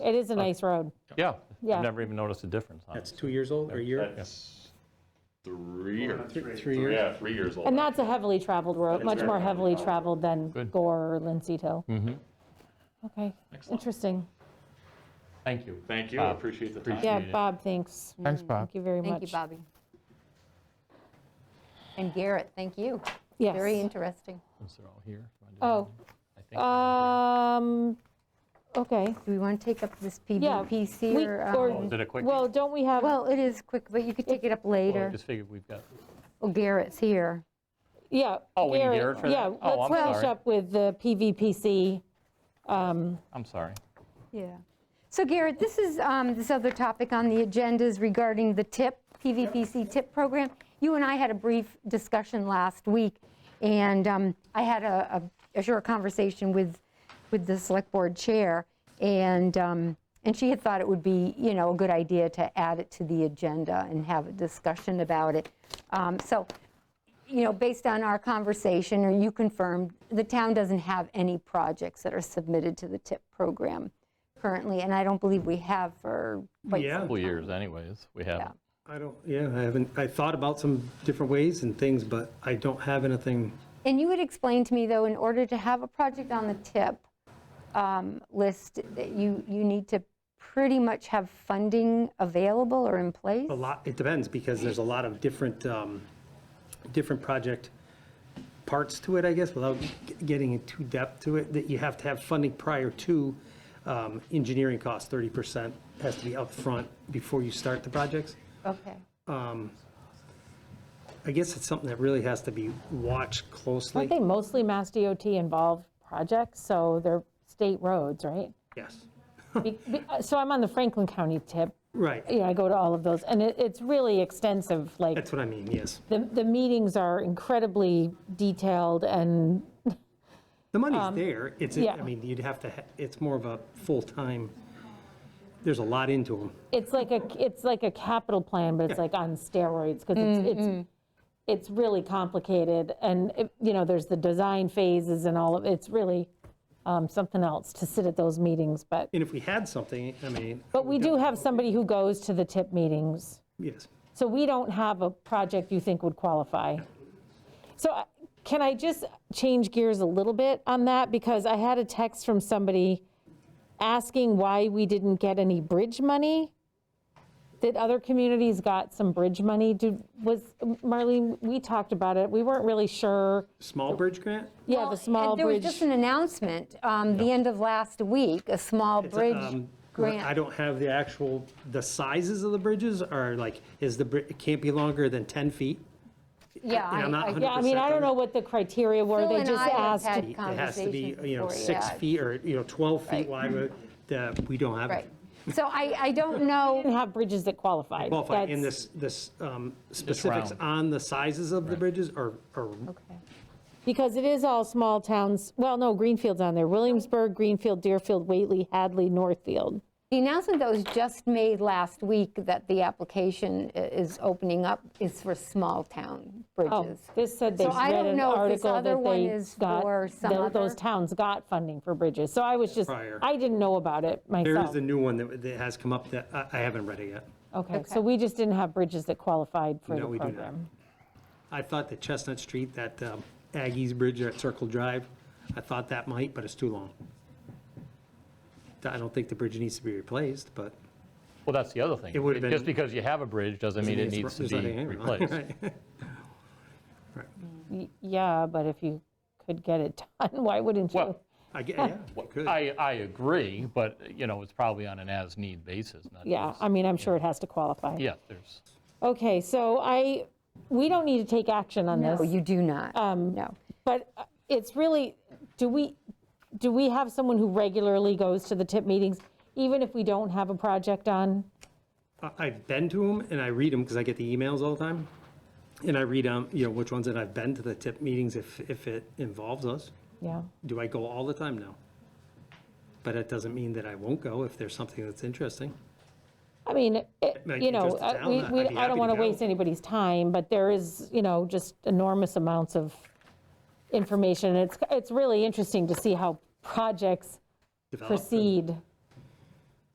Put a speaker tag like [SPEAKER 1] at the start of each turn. [SPEAKER 1] It is a nice road.
[SPEAKER 2] Yeah.
[SPEAKER 1] Yeah.
[SPEAKER 2] I've never even noticed a difference on it.
[SPEAKER 3] That's two years old or a year?
[SPEAKER 4] That's three or,
[SPEAKER 3] Three years?
[SPEAKER 4] yeah, three years old.
[SPEAKER 1] And that's a heavily traveled road, much more heavily traveled than Gore or Lindsay Hill.
[SPEAKER 2] Mm-hmm.
[SPEAKER 1] Okay, interesting.
[SPEAKER 2] Thank you.
[SPEAKER 4] Thank you, I appreciate the time.
[SPEAKER 1] Yeah,
[SPEAKER 2] Appreciate it.
[SPEAKER 1] Bob, thanks.
[SPEAKER 5] Thanks, Bob.
[SPEAKER 1] Thank you very much.
[SPEAKER 6] Thank you, Bobby. And Garrett, thank you. Very
[SPEAKER 1] Yes.
[SPEAKER 6] interesting.
[SPEAKER 2] Since they're all here. if I
[SPEAKER 1] Oh,
[SPEAKER 2] do- I
[SPEAKER 1] Uh,
[SPEAKER 2] think-
[SPEAKER 1] um, okay.
[SPEAKER 6] Do we want to take up this
[SPEAKER 1] Yeah,
[SPEAKER 6] PVPC
[SPEAKER 1] we-
[SPEAKER 6] or?
[SPEAKER 1] or-
[SPEAKER 6] um,
[SPEAKER 2] Oh, Is it a quick?
[SPEAKER 1] Well, don't we have,
[SPEAKER 6] Well, it is quick, but you could take it up
[SPEAKER 2] Well, I
[SPEAKER 6] later.
[SPEAKER 2] just figured we've got,
[SPEAKER 6] Well, Garrett's here.
[SPEAKER 1] yeah.
[SPEAKER 2] Oh, we need Garrett for that?
[SPEAKER 1] Yeah,
[SPEAKER 2] Oh,
[SPEAKER 1] let's
[SPEAKER 2] I'm
[SPEAKER 1] finish
[SPEAKER 2] sorry.
[SPEAKER 1] up with the PVPC. um,
[SPEAKER 2] I'm sorry.
[SPEAKER 6] Yeah. So Garrett, this is, um, this other topic on the agenda is regarding the TIP, PVPC TIP program. You and I had a brief discussion last week, and um, I had a a- a short conversation with, with the Select Board Chair, and, um, and she had thought it would be, you know, a good idea to add it to the agenda and have a discussion about it. Um, So you know, based on our conversation, or you confirmed, the town doesn't have any projects that are submitted to the TIP program currently, and I don't believe we have for quite
[SPEAKER 3] Yeah.
[SPEAKER 6] some
[SPEAKER 2] Couple years anyways, we haven't.
[SPEAKER 3] I don't, yeah, I haven't, I thought about some different ways and things, but I don't have anything.
[SPEAKER 6] And you had explained to me, though, in order to have a project on the TIP um, list, that you, you need to pretty much have funding available or in place?
[SPEAKER 3] A lot, it depends, because there's a lot of different, um, different project parts to it, I guess, without g- getting into depth to it, that you have to have funding prior to um, engineering costs, 30% has to be upfront before you start the projects.
[SPEAKER 6] Okay.
[SPEAKER 3] I guess it's something that really has to be watched
[SPEAKER 1] Aren't
[SPEAKER 3] closely.
[SPEAKER 1] they mostly Mass DOT involved projects? So they're state roads, right?
[SPEAKER 3] Yes,
[SPEAKER 1] Be- be- uh, So I'm on the Franklin County tip.
[SPEAKER 3] right.
[SPEAKER 1] You know, I go to all of those and it, it's really extensive, like
[SPEAKER 3] That's what I mean, yes.
[SPEAKER 1] the, the meetings are incredibly detailed and,
[SPEAKER 3] The money's there, it's,
[SPEAKER 1] Um, yeah.
[SPEAKER 3] I mean, you'd have to, ha- it's more of a full-time, there's a lot into them.
[SPEAKER 1] it's like a, it's like a capital plan, but it's like on steroids, because it's, it's, it's really complicated, and, it- you know, there's the design phases and all of, it's really um, something else to sit at those meetings, but,
[SPEAKER 3] And if we had something, I mean,
[SPEAKER 1] but we do have somebody who goes to the TIP meetings.
[SPEAKER 3] yes.
[SPEAKER 1] So we don't have a project you think would qualify. So I- can I just change gears a little bit on that? Because I had a text from somebody asking why we didn't get any bridge money. That other communities got some bridge money? Do- Was, Marlene, we talked about it, we weren't really sure.
[SPEAKER 3] Small bridge grant?
[SPEAKER 1] Yeah, the small
[SPEAKER 6] And There was
[SPEAKER 1] bridge.
[SPEAKER 6] just an announcement, um, the end of last week, a small
[SPEAKER 3] It's,
[SPEAKER 6] bridge
[SPEAKER 3] um,
[SPEAKER 6] grant.
[SPEAKER 3] I don't have the actual, the sizes of the bridges are like, is the, bri- it can't be longer than 10 feet.
[SPEAKER 6] Yeah,
[SPEAKER 3] and I'm not
[SPEAKER 6] I- I-
[SPEAKER 1] Yeah, I mean, I don't know what the criteria were,
[SPEAKER 6] Phil
[SPEAKER 1] they
[SPEAKER 6] and
[SPEAKER 1] just
[SPEAKER 6] I
[SPEAKER 1] asked.
[SPEAKER 6] have had
[SPEAKER 3] It has to be,
[SPEAKER 6] conversations
[SPEAKER 3] you know,
[SPEAKER 6] before,
[SPEAKER 3] six
[SPEAKER 6] yeah.
[SPEAKER 3] feet or, you know, 12
[SPEAKER 6] Right.
[SPEAKER 3] feet wide, uh, that we don't have.
[SPEAKER 6] Right. So I, I don't know,
[SPEAKER 1] Didn't have bridges that qualified.
[SPEAKER 3] Qualified, and
[SPEAKER 1] That's-
[SPEAKER 3] this, this um, specifics
[SPEAKER 2] round.
[SPEAKER 3] on the sizes of the bridges are, are
[SPEAKER 1] Because it is all small towns, well, no, Greenfield's on there, Williamsburg, Greenfield, Deerfield, Whately, Hadley, Northfield.
[SPEAKER 6] the announcement that was just made last week that the application i- is opening up is for small town
[SPEAKER 1] Oh,
[SPEAKER 6] bridges.
[SPEAKER 1] this said they
[SPEAKER 6] So I
[SPEAKER 1] read
[SPEAKER 6] don't
[SPEAKER 1] an
[SPEAKER 6] know if this
[SPEAKER 1] article
[SPEAKER 6] other
[SPEAKER 1] that
[SPEAKER 6] one
[SPEAKER 1] they
[SPEAKER 6] is
[SPEAKER 1] got,
[SPEAKER 6] for some
[SPEAKER 1] tho- those
[SPEAKER 6] other-
[SPEAKER 1] towns got funding for bridges. So I was just,
[SPEAKER 3] Prior.
[SPEAKER 1] I didn't know about it
[SPEAKER 3] There is
[SPEAKER 1] myself.
[SPEAKER 3] a new one that, that has come up that I, I haven't read it yet.
[SPEAKER 1] Okay, so we just didn't have bridges that qualified for
[SPEAKER 3] No,
[SPEAKER 1] the
[SPEAKER 3] we do not.
[SPEAKER 1] program.
[SPEAKER 3] I thought that Chestnut Street, that um, Aggies Bridge at Circle Drive, I thought that might, but it's too long. I don't think the bridge needs to be replaced, but
[SPEAKER 2] Well, that's the other thing.
[SPEAKER 3] It would've
[SPEAKER 2] Just
[SPEAKER 3] been-
[SPEAKER 2] because you have a bridge doesn't mean it
[SPEAKER 3] it's-
[SPEAKER 2] needs to
[SPEAKER 3] there's
[SPEAKER 2] be
[SPEAKER 3] nothing wrong,
[SPEAKER 2] replaced.
[SPEAKER 3] right?
[SPEAKER 1] Y- Yeah, but if you could get it done, why wouldn't you?
[SPEAKER 2] Well,
[SPEAKER 3] I get, yeah, you could.
[SPEAKER 2] I, I agree, but, you know, it's probably on an as-need basis, not
[SPEAKER 1] Yeah,
[SPEAKER 2] just-
[SPEAKER 1] I mean, I'm sure it has to qualify.
[SPEAKER 2] Yeah, there's,
[SPEAKER 1] Okay, so I, we don't need to take action on this.
[SPEAKER 6] No, you do not,
[SPEAKER 1] Um,
[SPEAKER 6] no.
[SPEAKER 1] But uh, it's really, do we, do we have someone who regularly goes to the TIP meetings, even if we don't have a project on?
[SPEAKER 3] I- I've been to them and I read them because I get the emails all the time. And I read, um, you know, which ones, and I've been to the tip meetings if, if it involves us.
[SPEAKER 1] Yeah,
[SPEAKER 3] Do I go all the time? No. But it doesn't mean that I won't go if there's something that's interesting.
[SPEAKER 1] I mean, it-
[SPEAKER 3] Like,
[SPEAKER 1] you know,
[SPEAKER 3] just to
[SPEAKER 1] uh,
[SPEAKER 3] town,
[SPEAKER 1] we,
[SPEAKER 3] I'd
[SPEAKER 1] we-
[SPEAKER 3] be
[SPEAKER 1] I
[SPEAKER 3] happy
[SPEAKER 1] don't
[SPEAKER 3] to
[SPEAKER 1] want to
[SPEAKER 3] go.
[SPEAKER 1] waste anybody's time, but there is, you know, just enormous amounts of information. It's, it's really interesting to see how projects
[SPEAKER 3] Develop and-
[SPEAKER 1] proceed